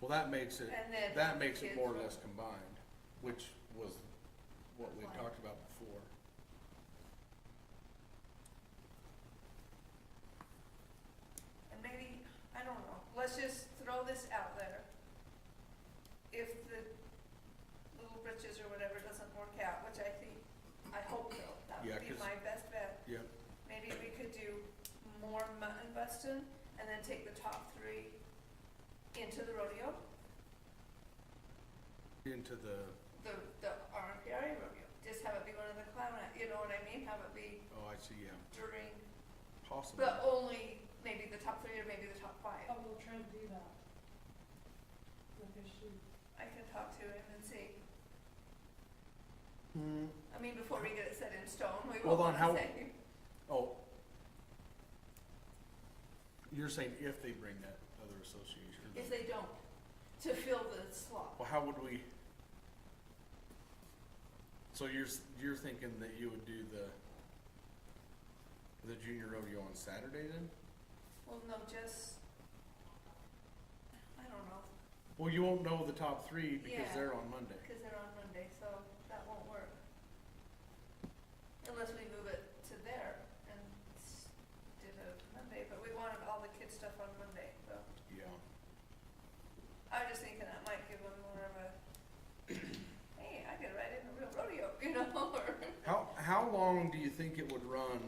Well, that makes it, And then that makes it kids more or will- less combined, which was what we talked about before. And maybe, I don't know, let's just throw this out there. If the Little Britches or whatever doesn't work out, which I think, I hope will, that Yeah, would be 'cause- my best bet. Yep, Maybe we could do more mutton busting and then take the top three into the rodeo, into the, the, the RMPRA rodeo. Just have it be one of the clown, act, you know what I mean? Have it be oh, I see, yeah, during, possibly. but only maybe the top three or maybe the top five. Oh, we'll try to do that. Like I should, I can talk to him and see. Hmm, I mean, before we get it set in stone, we Hold will on, want how- to say. oh. You're saying if they bring that other association. or If the- they don't, to fill the slot. Well, how would we? So you're, s- you're thinking that you would do the, the junior rodeo on Saturday then? Well, no, just, I don't know, Well, you won't know the top three because Yeah. they're on Monday. because they're on Monday, so that won't work. Unless we move it to there and s- did a Monday, but we wanted all the kids' stuff on Monday, so. Yeah. I was just thinking that might give them more of a, hey, I could ride in the real rodeo, you know, or. How, how long do you think it would run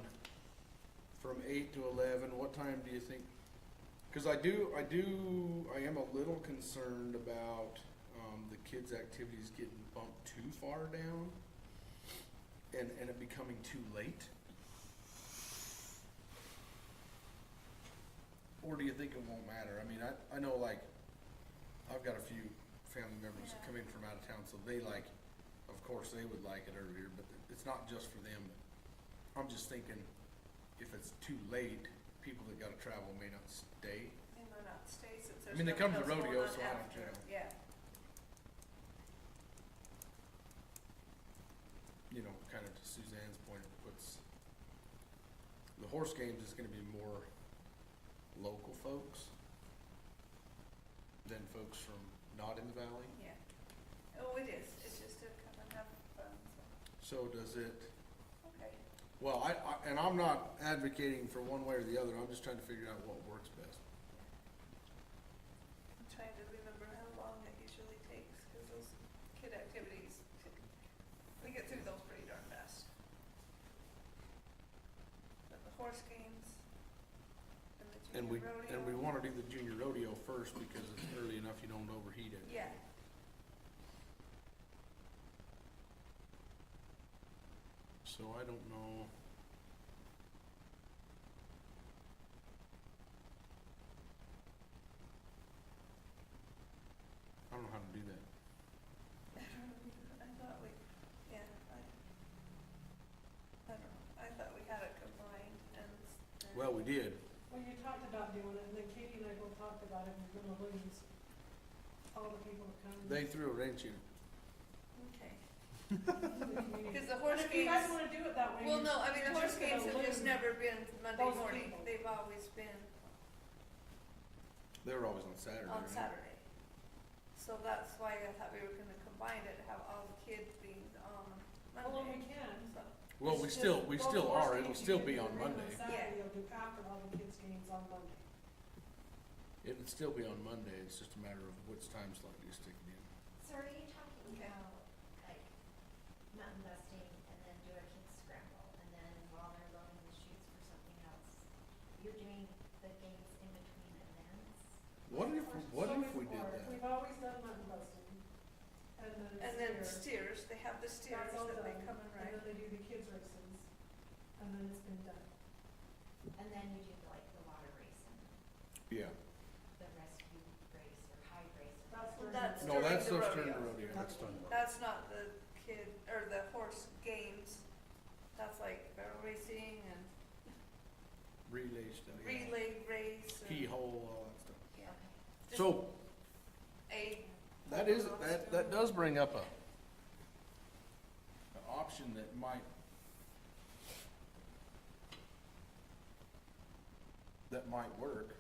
from eight to eleven? What time do you think? Cause I do, I do, I am a little concerned about, um, the kids' activities getting bumped too far down and, and it becoming too late. Or do you think it won't matter? I mean, I, I know like, I've got a few family members that Yeah. come in from out of town, so they like, of course, they would like it earlier, but it's not just for them. I'm just thinking, if it's too late, people that gotta travel may not stay. They might not stay since there's. I mean, they come to nothing rodeo, else going on so I don't after. care. Yeah, you know, kind of to Suzanne's point, it puts, the horse games is gonna be more local folks than folks from not in the valley. yeah. Oh, it is, it's just to come and have fun, so, So does it, okay. well, I, I, and I'm not advocating for one way or the other, I'm just trying to figure out what works best. I'm trying to remember how long it usually takes, cause those kid activities, we get through those pretty darn fast. But the horse games and the And we, junior rodeo. and we wanna do the junior rodeo first because it's early enough, you don't overheat it. Yeah. So I don't know. I don't know how to do that. I thought we, yeah, I, I don't know, I thought we had it combined and. s- and- Well, we did. well, you talked about doing it, and then Katie and I both talked about it, and we're gonna lose all the people that come. They threw a wrench in. Okay, in the community. because the But horse if you guys games, wanna do it that way. well, you- no, I mean, the you're horse just gonna games have just lose. never been Monday those morning, people. they've always been They were always on Saturday. on right? Saturday. So that's why I thought we were gonna combine it, have all the kids being on Well, we Monday, can. so, Well, we It's still, just we both still horse are. It'll games you still can be do on the ring Monday. Saturday, Yeah. you'll do after all the kids' games on Monday. It'll still be on Monday. It's just a matter of which time slot you stick it in. So are you talking Okay. about like mountain busting and then do a kids scramble and then while they're loading the chutes for something else? You're doing the games in between events? What if, what So if we did before, that? We've always done mutton busting, and then. and then steer. steers, they have the steers all that they done. come and And ride. then they do the kids races, and then it's been done. And then you do like the water race and Yeah. the rescue race or high race. Well, That's or where. that's No, during that the stuff's during the rodeo. rodeo. That's done. That's not the kid, or the horse games. That's like barrel racing and Relay stuff. yeah. relay race and, Keyhole, all that stuff. yeah. Okay. Just So A, That is, that, that does bring up a, an option that might, that might work.